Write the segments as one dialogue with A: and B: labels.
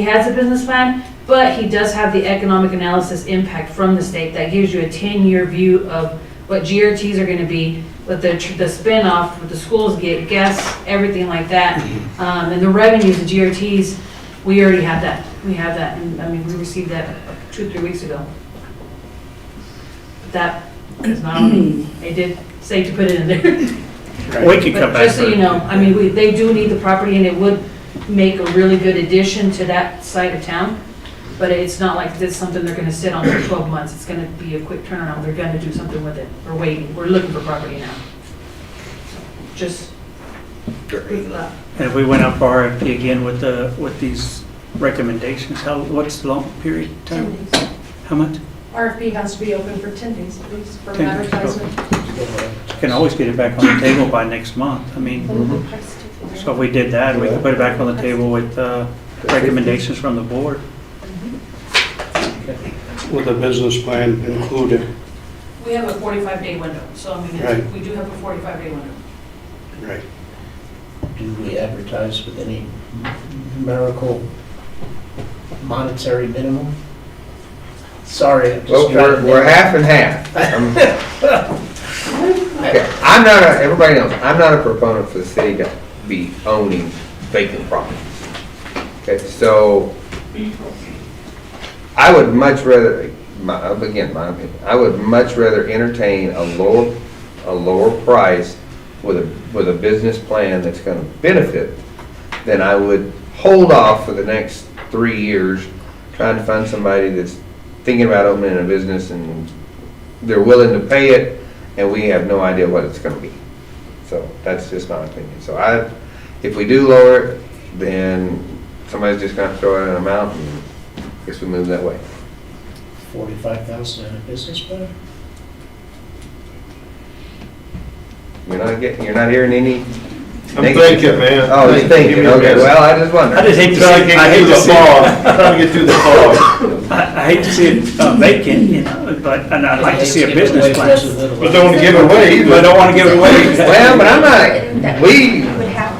A: He has a business plan, but he does have the economic analysis impact from the state that gives you a 10-year view of what GRTs are going to be, what the, tr- the spin-off, what the schools get, gas, everything like that. Um, And the revenues, the GRTs, we already have that. We have that, and I mean, we received that two, three weeks ago. But That is not, on me. they did say to put it in there.
B: We could
A: But
B: come back.
A: just so
B: for-
A: you know, I mean, we, they do need the property and it would make a really good addition to that side of town. But it's not like this, something they're gonna sit on for twelve months. It's gonna be a quick turnaround. They're gonna do something with it. We're waiting. We're looking for property now. Just. uh,
B: And if we went out for RFP again with the, with these recommendations, how, what's the long period of time?
C: 10 days.
B: How much?
C: RFP has to be open for 10 days at least for
B: 10 days,
C: advertisement.
B: Can always get it back on the table by next month. I mean, so if we did that, we could put it back on the table with uh, recommendations from the board.
D: With a business plan included,
A: We have a forty-five day window, so I mean, it's- we do have a forty-five day window.
D: right.
E: Do we advertise with any numerical monetary minimum? Sorry, I'm
F: Well,
E: just
F: we're,
E: trying
F: we're
E: to...
F: half and half. I'm okay, I'm not, a- everybody knows, I'm not a proponent for the city to be owning vacant property. Okay, so I would much rather, my, again, my opinion, I would much rather entertain a lower, a lower price with a, with a business plan that's gonna benefit than I would hold off for the next three years trying to find somebody that's thinking about opening a business and they're willing to pay it, and we have no idea what it's gonna be. So that's just my opinion. So I, if we do lower it, then somebody's just gonna throw out an amount, and I guess we move that way.
E: 45,000 in a business plan?
F: You're not getting, you're not hearing any.
G: I'm thinking, man.
F: Oh, you're thinking, okay, well, I just wondered.
B: I just hate to see,
G: Trying to
B: I
G: get
B: hate
G: through
B: to
G: the
B: see, I
G: fog, trying to get through the fog.
B: I hate to see it uh, vacant, you know, but, and I'd like to see a business plan.
G: But don't give it away either.
B: But I don't want to give it away.
F: Well, but I'm not, we,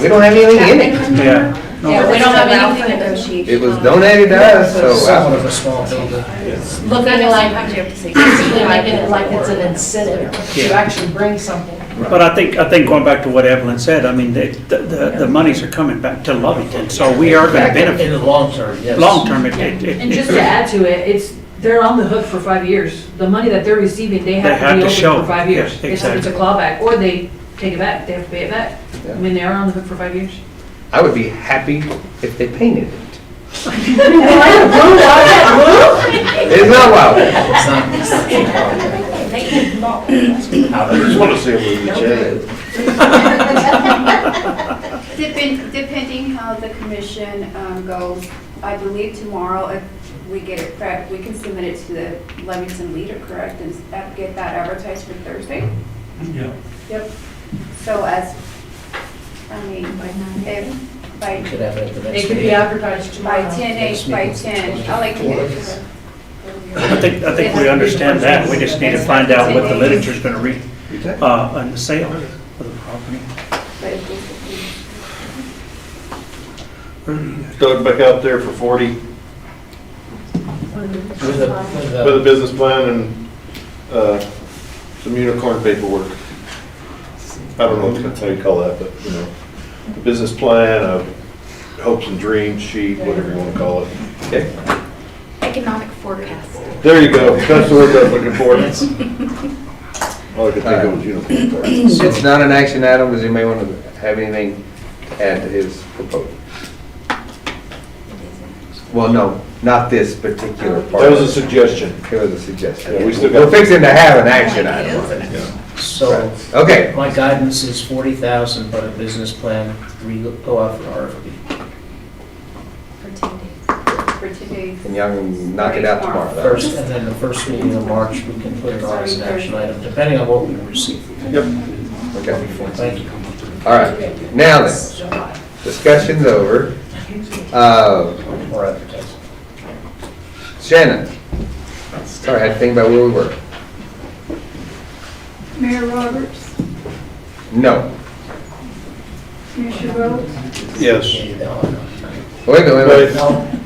F: we don't have anything in it.
B: Yeah.
C: Yeah,
B: No.
C: we don't have anything to
H: negotiate.
F: It was donated to us, so
E: Somewhat of
F: I,
E: a small building.
C: Look at it like,
H: Basically,
C: basically making it like it's an incentive to
B: Yeah.
C: actually bring something.
B: But I think, I think going back to what Evelyn said, I mean, the, the, the monies are coming back to Lovington, so we are going to benefit.
E: In the long term, yes.
B: Long term, it, it, it-
A: And just to add to it, it's, they're on the hook for five years. The money that they're receiving, they have
B: They
A: to
B: have
A: be
B: to
A: open
B: show.
A: for five years.
B: Yeah,
A: It's it's a
B: exactly.
A: clawback, or they take it back, they have to pay it back. I mean, they are on the hook for five years.
F: I would be happy if they painted it. It's not wild.
E: It's not-
G: I just want to see a movie, Chad.
H: Depend- Depending how the commission um, goes, I believe tomorrow, if we get it prepped, we can submit it to the Livingston Leader, correct? And s- uh, get that advertised for Thursday? Yeah. Yep. So as, I mean, if,
E: We
H: by,
E: could have it at the
C: It
E: next
C: could be
E: meeting.
C: advertised
H: by
C: tomorrow.
H: 10, eight- by 10, I like to get it to
B: I
H: the.
B: think, I think we understand that, we just need to find out what the literature's gonna read, uh, on the sale of the property.
H: but if we-
G: Throw it back out there for 40
E: With a, with
G: with a
E: a,
G: business plan and uh, some unicorn paperwork. I don't know what- how you call that, but, you know, a business plan, a hopes and dreams sheet, whatever you want to call it.
H: Economic forecast.
G: There you go, that's the word I was looking for. All I could think of was unicorn.
F: It's not an action item, does anybody want to have anything to add to his proposal? Well, no, not this particular part.
G: That was a suggestion.
F: It was a suggestion.
G: Yeah, we still got-
F: We're fixing to have an action item on it.
E: so
F: Okay,
E: my guidance is 40,000, but a business plan, we go out for RFP.
H: For today.
F: and y'all can knock it out tomorrow. though.
E: First, and then the first meeting in March, we can put it on as an action item, depending on what we receive.
F: Okay,
E: Thank you.
F: all right. Now then, discussion's over. Uh,
E: Or advertising.
F: Shannon, sorry, I had to think about where we were.
H: Mayor Roberts,
F: No.
H: Commissioner Rhodes?
G: Yes.
E: Yeah, you know, I know.
F: Wait, a minute, wait, a minute.
G: But
E: No,